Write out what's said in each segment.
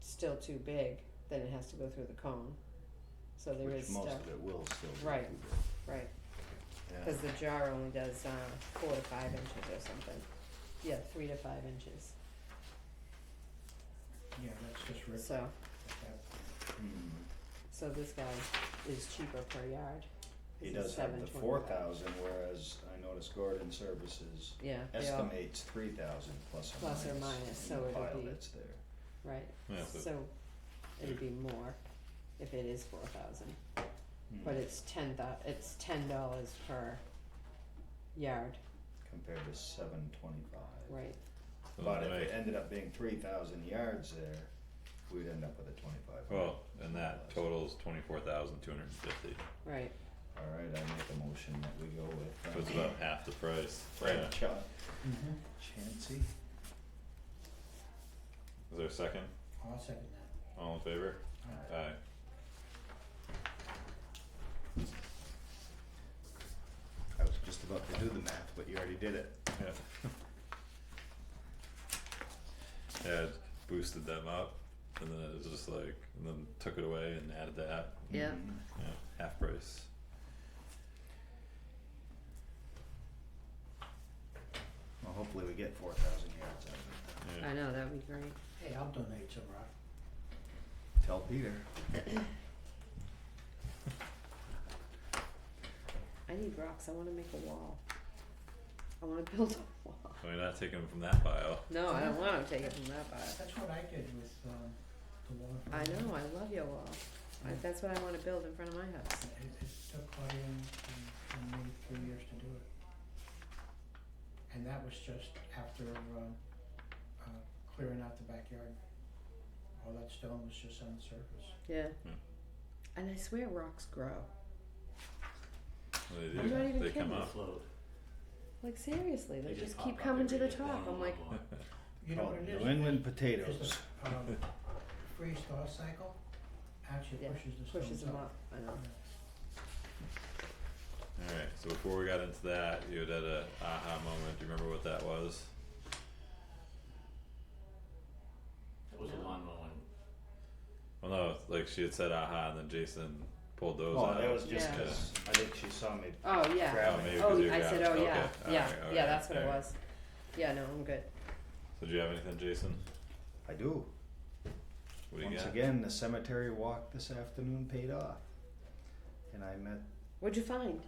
still too big, then it has to go through the cone. So there which is most stuff, of it will still be. Right. too right, big. Yeah. cause the jar only does, uh, four to five inches or something. Yeah, three to five inches, Yeah, that's just ripped so, at that point. Mm. so this guy is cheaper per yard. He It's does have the $7.25. four thousand, whereas I noticed Gordon Services Yeah, they all, estimates three thousand plus or minus. Plus or minus, in so the it'll pile be- that's there. right, Yeah, but so it'd be more if it is four thousand, Mm. but it's ten thou- it's ten dollars per yard, Compared to seven twenty-five. right, But it'll if it make- ended up being three thousand yards there, we'd end up with a twenty-five. well, and that totals twenty-four thousand two hundred and fifty, right, Alright, I make a motion that we go with. so it's uh, about half the price, yeah, Frank Cha- Mm-hmm. Chancy? is there a second, I'll second that. all in favor? Alright. Aye, I was just about to do the math, but you already did it. yeah. Yeah, it boosted them up, and then it was just like, and then took it away and added that, Yeah. Mhm. yeah, half price. Well, hopefully we get four thousand yards out of I know, that'd be great. Hey, I'll donate some rock. it. Tell Peter. I need rocks. I want to make a wall. I want to build a wall. We're not taking them from that pile. No, I don't want to take it from that pile. Uh, That's what I did with, um, the water. I know. I love your wall. I, Mm. that's what I want to build in front of my house. It, it took Claudia and, and me three years to do it. And that was just after, um, uh, clearing out the backyard. All that stone was just on the surface. Yeah. Mm. Hmm. And I swear rocks grow. They do, I'm not even they come kidding. up. Like seriously, they, They just, just keep pop up coming to the every top. I'm like, You know Call what it it is? Oh, New England It's potatoes. the, um, freeze thaw cycle actually Yeah, pushes the stones up. pushes them up. I know. Yeah. Alright, so before we got into that, you had had a aha moment, do you remember what that was? It was a lawn mowing. Well, no, like she had said aha, and then Jason pulled those Oh, out. that was just Yeah. because I think she saw me Oh yeah. grab Oh, it. maybe Oh, 'cause you I grabbed said, it. oh okay. yeah, all yeah, right, all yeah. right, That's what all it right. was. Yeah. No, I'm good. So do you have anything, Jason? I do. What do you Once got? again, the cemetery walk this afternoon paid off. And I met What'd you find?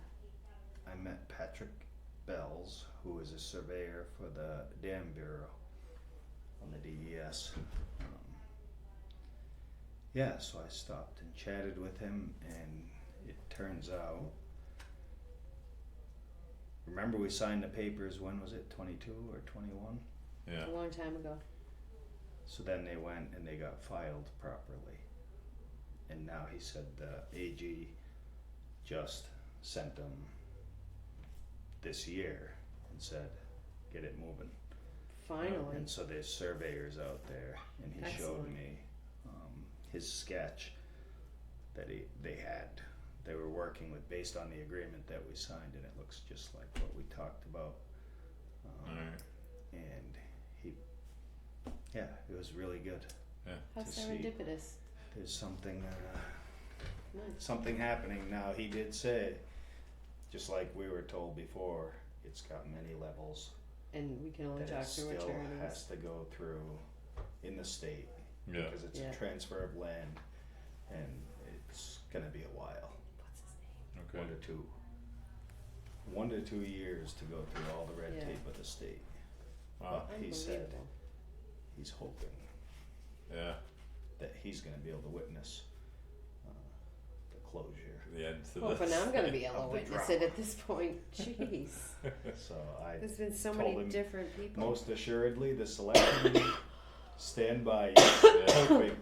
I met Patrick Bells, who is a surveyor for the Dam Bureau on the DES. Um, yeah, so I stopped and chatted with him, and it turns out. Remember, we signed the papers, when was it, 22 or 21? Yeah, A long time ago. So then they went and they got filed properly. And now he said the AG just sent them this year and said, get it moving. Finally. And so there's surveyors out there and he showed Excellent. me um, his sketch that he, they had. They were working with based on the agreement that we signed and it looks just like what we talked about. Um, alright, And he, yeah, it was really good. How to see. serendipitous. There's something, uh, Nice. something happening now. He did say, just like we were told before, it's got many levels And we can only that talk it through still attorneys. has to go through in the state yeah, because it's Yeah. a transfer of land, and it's gonna be a while, What's his name? okay, one to two, one to two years to go through all the red Yeah. tape of the state. wow, He said Unbelievable. he's hoping yeah, that he's gonna be able to witness uh, the closure. the end to this. Well, but now I'm gonna be Of able to the witness it at this point. Jeez, So I there's been so Told many him different people. Most assuredly, the selectmen stand by you, Yeah. hoping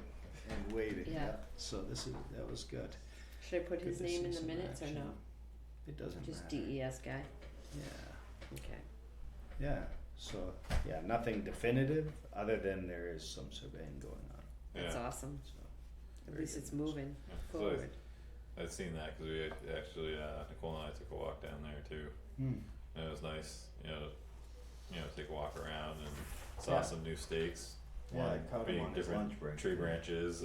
and waiting. Yeah. So this is, that was good. Should I put his Good to name see in the some minutes or action. no? It doesn't Just E. matter. DES guy. Yeah, Okay. yeah, so, yeah, nothing definitive, other than there is some surveying going on, That's Yeah. awesome. so. At very least good it's news. moving Yeah, so I- forward. I'd seen that, cause we had actually, uh, Nicole and I took a walk down there too, Hmm, and it was nice, you know, you know, take a walk around and Yeah. saw some new stakes, Yeah, I one caught him being on his different lunch break. tree yeah. branches